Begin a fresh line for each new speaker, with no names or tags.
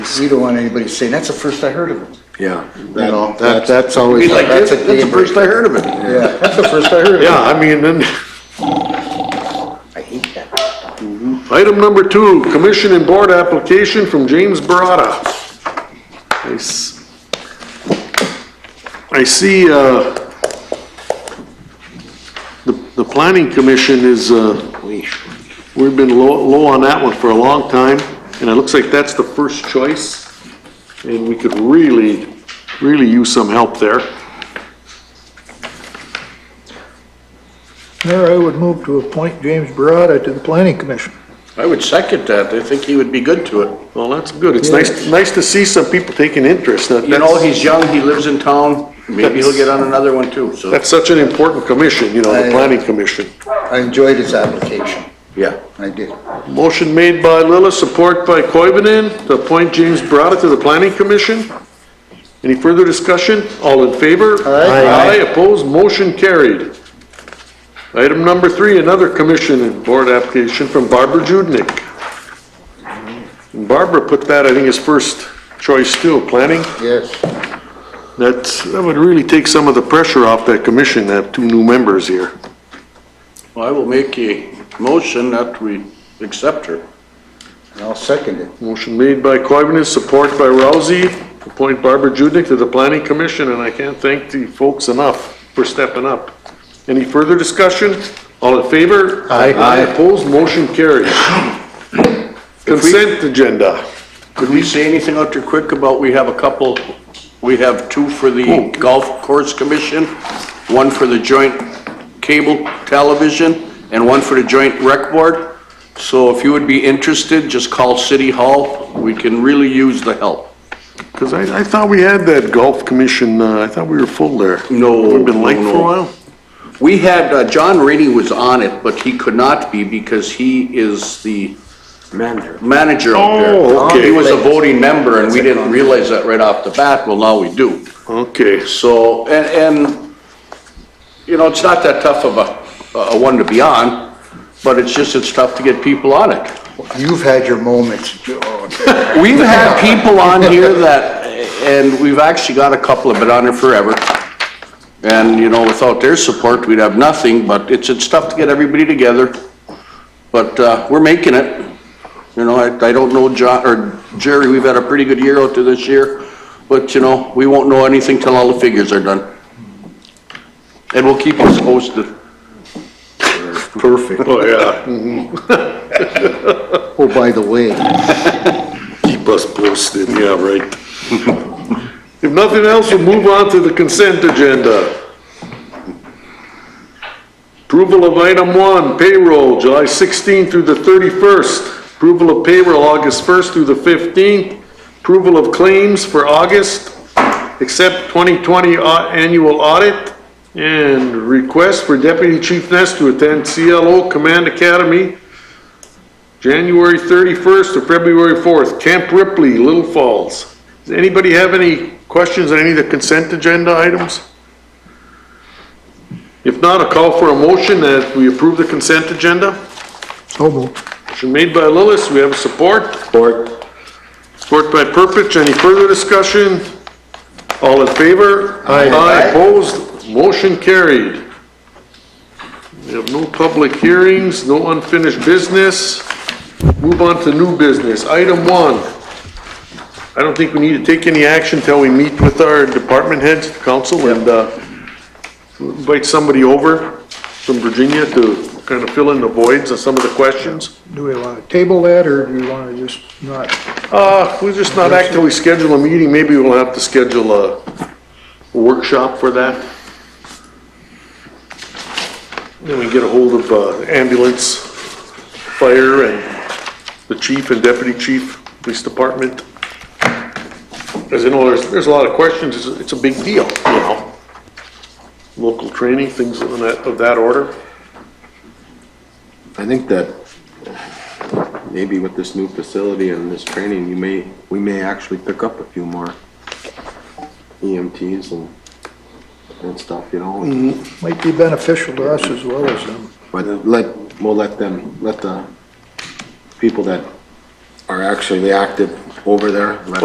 We don't want anybody saying, that's the first I heard of it.
Yeah.
You know, that, that's always,
Be like, that's
that's a
the
game
first I
breaker.
heard of it.
Yeah, that's the first I heard of it.
Yeah, I mean, then,
I hate that.
item number two, commission and board application from James Barata. I s- I see, uh, the, the planning commission is, uh, we've been low, low on that one for a long time, and it looks like that's the first choice. And we could really, really use some help there.
Mayor, I would move to appoint James Barata to the Planning Commission.
I would second that. I think he would be good to it.
Well, that's good. It's nice, nice to see some people taking interest. That-
You know,
that's-
he's young, he lives in town, maybe he'll get on another one too, so,
That's such an important commission, you know, the planning commission.
I enjoyed his application.
yeah.
I did.
Motion made by Lillis, support by Koivunen, to appoint James Barata to the planning commission. Any further discussion? All in favor?
Aye.
Aye, opposed, motion carried. Item number three, another commission and board application from Barbara Judnick. And Barbara put that, I think, as first choice too, planning.
Yes.
That's, that would really take some of the pressure off that commission, to have two new members here.
Well, I will make a motion that we accept her.
And I'll second it.
Motion made by Coivinon, support by Rousey, appoint Barbara Judnick to the planning commission, and I can't thank the folks enough for stepping up. Any further discussion? All in favor?
Aye.
Opposed, motion carries. Consent agenda.
Could we say anything out there quick about, we have a couple, we have two for the Golf Course Commission, one for the Joint Cable Television, and one for the Joint Rec Board. So if you would be interested, just call City Hall. We can really use the help.
Because I, I thought we had that golf commission, uh, I thought we were full there.
No,
We've been late
no,
for a
no.
while.
We had, uh, John Rainey was on it, but he could not be because he is the
Manager.
manager out there.
Oh, okay.
He was a voting member, and we didn't realize that right off the bat. Well, now we do.
Okay,
So, and, and, you know, it's not that tough of a, a one to be on, but it's just, it's tough to get people on it.
You've had your moments, Joe.
We've had people on here that, and we've actually got a couple of been on here forever. And, you know, without their support, we'd have nothing, but it's, it's tough to get everybody together. But, uh, we're making it. You know, I, I don't know John, or Jerry, we've had a pretty good year out there this year, but, you know, we won't know anything till all the figures are done. And we'll keep us posted.
Perfect.
oh yeah,
Oh, by the way,
keep us posted, yeah, right. If nothing else, we'll move on to the consent agenda. Approval of item one, payroll, July 16 through the 31st. Approval of payroll, August 1st through the 15th. Approval of claims for August, except 2020 au- annual audit. And request for Deputy Chief Ness to attend CLO Command Academy, January 31st to February 4th, Camp Ripley, Little Falls. Does anybody have any questions on any of the consent agenda items? If not, a call for a motion that we approve the consent agenda.
So moved.
Motion made by Lillis, we have support. Support. Support by Purpich, any further discussion? All in favor? Aye. Aye, opposed, motion carried. We have no public hearings, no unfinished business. Move on to new business, item one. I don't think we need to take any action until we meet with our department heads, council, and, uh, invite somebody over from Virginia to kind of fill in the voids of some of the questions.
Do we want to table that, or do we want to just not?
Uh, we're just not actively schedule a meeting, maybe we'll have to schedule a workshop for that. Then we get a hold of uh, ambulance, fire, and the chief and deputy chief, police department. As you know, there's, there's a lot of questions, it's, it's a big deal, you know? Local training, things of that, of that order.
I think that maybe with this new facility and this training, you may, we may actually pick up a few more EMTs and, and stuff, you know?
Might be beneficial to us as well as them.
But let, we'll let them, let the people that are actually the active over there, let